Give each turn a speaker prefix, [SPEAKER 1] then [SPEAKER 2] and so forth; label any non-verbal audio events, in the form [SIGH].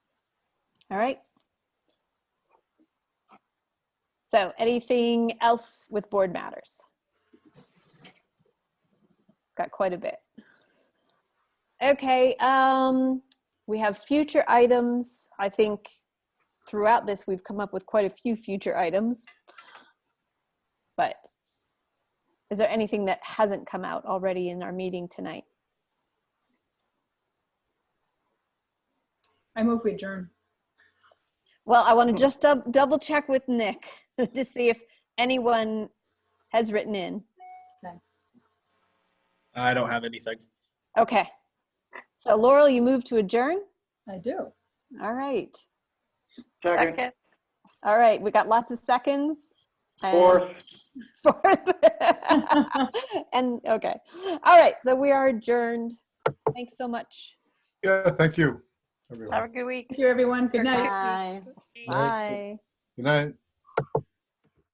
[SPEAKER 1] All right. So anything else with board matters? Got quite a bit. Okay, um, we have future items. I think throughout this, we've come up with quite a few future items. But is there anything that hasn't come out already in our meeting tonight?
[SPEAKER 2] I move we adjourn.
[SPEAKER 1] Well, I want
[SPEAKER 2] Oh.
[SPEAKER 1] to just dub- double check with Nick [LAUGHS] to see if anyone has written in.
[SPEAKER 3] I don't have anything.
[SPEAKER 1] Okay. So Laurel, you move to adjourn?
[SPEAKER 2] I do.
[SPEAKER 1] All right.
[SPEAKER 4] Second,
[SPEAKER 1] All right. We got lots of seconds. and- [LAUGHS]
[SPEAKER 4] fourth,
[SPEAKER 1] Fourth. and okay. All right. So we are adjourned. Thanks so much.
[SPEAKER 5] Yeah, thank you,
[SPEAKER 4] have a
[SPEAKER 5] everyone.
[SPEAKER 4] good week.
[SPEAKER 2] Thank you, everyone. Good night.
[SPEAKER 1] Bye.
[SPEAKER 5] Bye. Good night.